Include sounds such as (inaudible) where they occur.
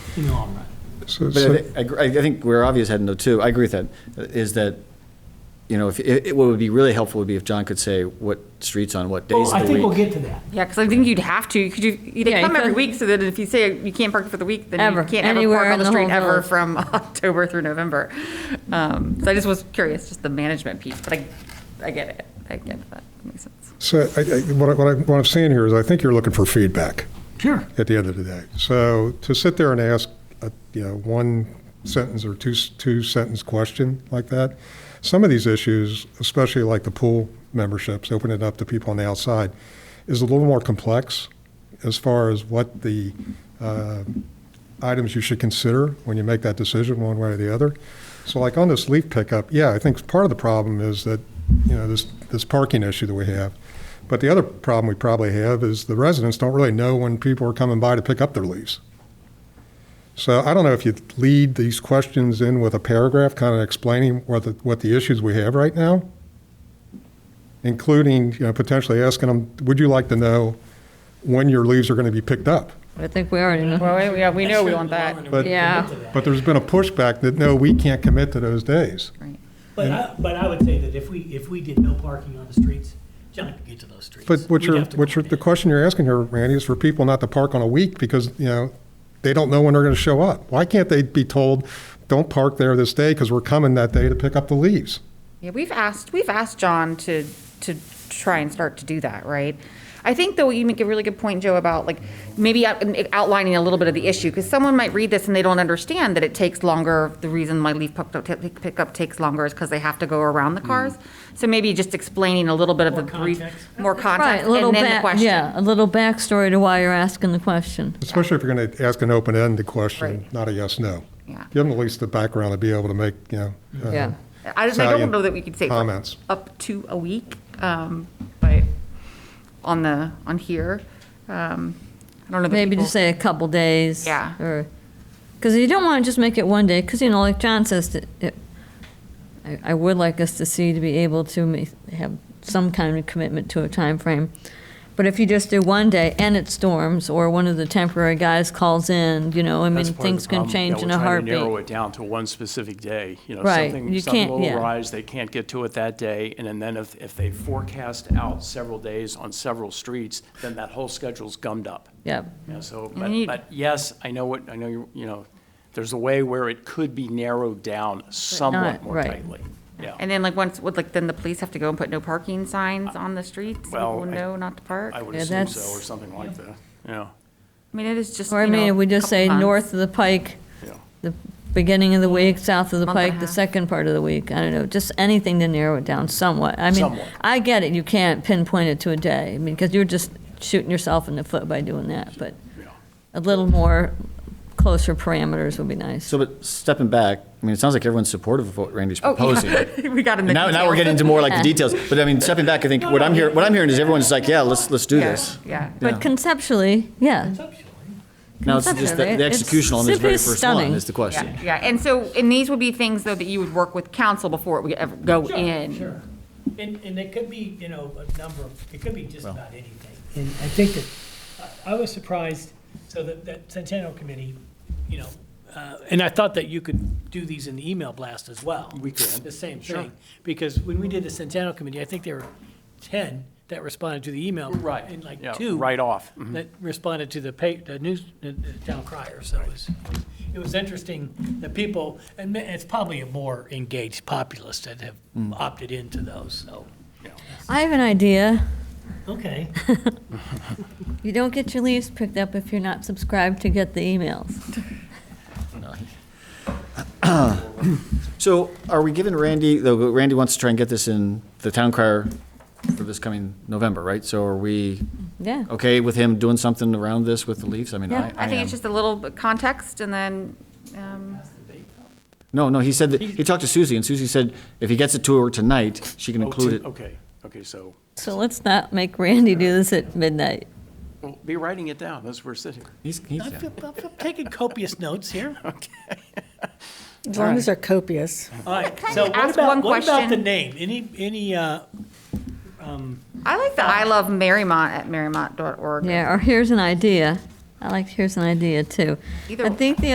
in the long run. So- But I so- thi- I, gr- I think where obvious heading though too, I agree with that, uh, is that, you know, if, it, it- what would be really helpful would be if John could say what streets on what days Well, I of the think we'll week. get to that. Yeah, because I think you'd have to, you could, do- Yeah, they you come every could. week, so that if you say you can't park for the week, then Ever, you can't ever anywhere park on in the the street whole ever village. from (laughs) October through November. Um, So I just was curious, just the management piece, but I, I get it, I get that, makes sense. So I- I- what I- what I- what I'm saying here is I think you're looking for feedback. Sure. at the end of the day. So to sit there and ask, a, you know, one sentence or two two sentence question like that, some of these issues, especially like the pool memberships, opening it up to people on the outside, is a little more complex as far as what the uh, items you should consider when you make that decision one way or the other. So like on this leaf pickup, yeah, I think part of the problem is that, you know, this, this parking issue that we have. But the other problem we probably have is the residents don't really know when people are coming by to pick up their leaves. So I don't know if you lead these questions in with a paragraph kind of explaining what the, what the issues we have right now, including, you know, potentially asking them, would you like to know when your leaves are going to be picked up? I think we already know. Well, yeah, we know we want that. But- Yeah. But there's been a pushback that, no, we can't commit to those days. But I, but I would say that if we, if we did no parking on the streets, John could get to those streets. But what We'd you're, have to what you're, the coordinate. question you're asking here, Randy, is for people not to park on a week because, you know, they don't know when they're going to show up. Why can't they be told, don't park there this day because we're coming that day to pick up the leaves? Yeah, we've asked, we've asked John to, to try and start to do that, right? I think though, you make a really good point, Joe, about like maybe out- outlining a little bit of the issue, because someone might read this and they don't understand that it takes longer. The reason my leaf pickup, ta- pickup takes longer is because they have to go around the cars. So maybe just explaining a little bit of the More brief, context. more Mm-hmm. Right, context, a little and then the back, question. yeah, a little backstory to why you're asking the question. Especially if you're going to ask an open-ended question, Right. not a yes, no. Yeah. Give them at least the background to be able to make, you know. uh, Yeah. I just, I don't salient know that we could say for Comments. up to a week, um, but on the, on here, um, I don't know. that Maybe people- just say a couple days. Yeah. Or, because you don't want to just make it one day, because, you know, like John says, that it- I, I would like us to see to be able to ma- have some kind of commitment to a time frame. But if you just do one day and it storms, or one of the temporary guys calls in, you know, I mean, That's part of things the can problem, change that in we're a trying to heartbeat. Narrow it down to one specific day, you know, Right, something, you something can't- yeah. will arise, they can't get to it that day, and then- then if, if they forecast out several days on several streets, then that whole schedule's gummed up. Yeah. Yeah, so, you- but, but yes, I know what, I know, you you know, there's a way where it could be narrowed down somewhat not- more right. tightly. Yeah, And then like once, would like then the police have to go and put no parking signs on the streets? so Well, People I- know not to park? I would Yeah, assume so, that's- or something like that, yeah, I mean, it is just, you Or I mean, know, if we just couple say months. north of the pike, yeah. the beginning of the week, south of the Month and a pike, the half. second part of the week. I don't know, just anything to narrow it down somewhat. I mean, Somewhat. I get it, you can't pinpoint it to a day, I mean, because you're just shooting yourself in the foot by doing that, but a little more closer parameters would be nice. So, but stepping back, I mean, it sounds like everyone's supportive of what Randy's Oh, proposing. (laughs) yeah. (laughs) We got in the And now, now we're getting into more like the details, but I mean, stepping back, I think what I'm hearing, what I'm hearing is everyone's like, yeah, let's, let's do this. Yeah. Yeah. But conceptually, yeah, Now, it's just the Conceptually, the it's execution on this very simply first one stunning. is the question. Yeah, and so, and these would be things though that you would work with council before it would ever go Sure, in. Sure. And, and it could be, you know, a number of, it could be just about anything. And I think that, I I was surprised, so that, that Centennial Committee, you know, uh, and I thought that you could do these in the email blast as well. We could. The same thing. Because when we did the Centennial Committee, I think there were 10 that responded to the email. Right, And like yeah, two. right off. Mhm. That responded to the pa, the news, the the town crier, so it was, it was interesting that people, and ma- it's probably a more engaged populace that have opted into those, so. I have an idea. Okay. You don't get your leaves picked up if you're not subscribed to get the emails. So are we giving Randy, though Randy wants to try and get this in the town crier for this coming November, right? So are we Yeah. okay with him doing something around this with the Leafs? I mean, I, I Yeah. am. I think it's just a little bit context and then, um, No, no, he said that, he talked to Susie, and Susie said if he gets it to her tonight, she can Oh, include to- it. Okay, okay, so, So let's not make Randy do this at midnight. well, be writing it down as we're sitting. He's, he's, I feel- I feel- I'm taking copious notes here. As long as they're copious. All right, so what ask about, one what about the question? name? Any, any, uh, I like the I love Marymont at marymont.org. Yeah, or here's an idea. I like here's an idea too. Either I one. think the